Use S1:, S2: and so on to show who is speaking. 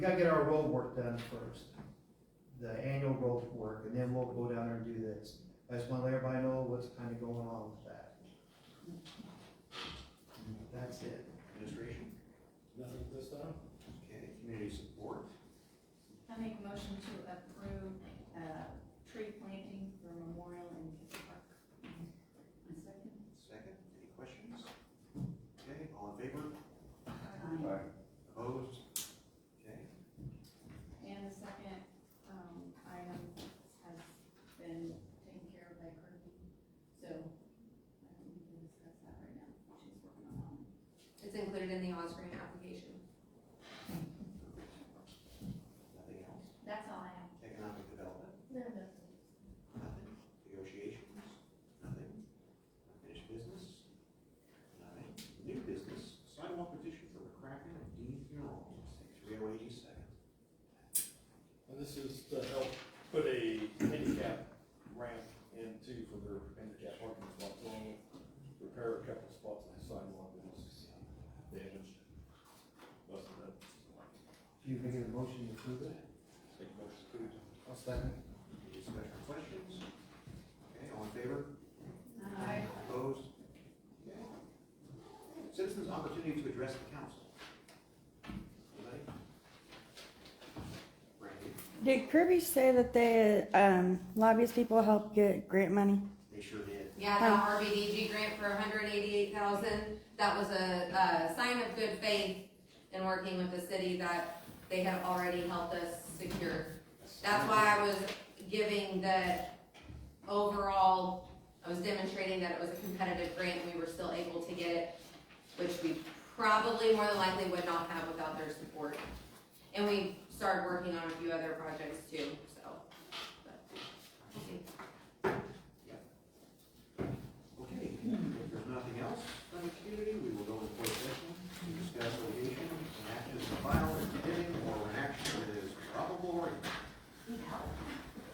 S1: We gotta get our road work done first, the annual road work, and then we'll go down there and do this. I just wanna let everybody know what's kinda going on with that. That's it.
S2: Administration,
S3: Nothing this time?
S2: okay, community support,
S4: I make a motion to approve, uh, tree planting for memorial in Kitty Park. A second?
S2: second, any questions? Okay, all in favor,
S4: Aye.
S2: opposed? Okay,
S4: And the second, um, item has been taken care of by Kirby, so, um, we can discuss that right now, she's working on that. one.
S5: It's included in the Oz grant application.
S2: nothing else,
S4: That's all I have.
S2: economic development,
S4: No, no.
S2: nothing, negotiations, nothing, unfinished business, nothing, new business, sidewalk petition for McCracken and Dean funeral homes, three oh eight East Second.
S3: And this is to help put a handicap ramp in too for their handicap parking spots, along with repair a couple spots on the sidewalk that was damaged. Busted up.
S1: Do you make a motion to approve it?
S3: Take a motion to approve.
S1: I'll second.
S2: Any discussion or questions? Okay, all in favor,
S4: Aye.
S2: opposed? Okay. Citizens' opportunity to address the council. Anybody? Randy?
S6: Did Kirby say that the um, lobbyist people help get grant money?
S2: They sure did.
S5: Yeah, the RBDG grant for hundred eighty-eight thousand, that was a, uh sign of good faith in working with the city that they have already helped us secure. That's why I was giving the overall, I was demonstrating that it was a competitive grant, we were still able to get it, which we probably more than likely would not have without their support. And we started working on a few other projects too, so.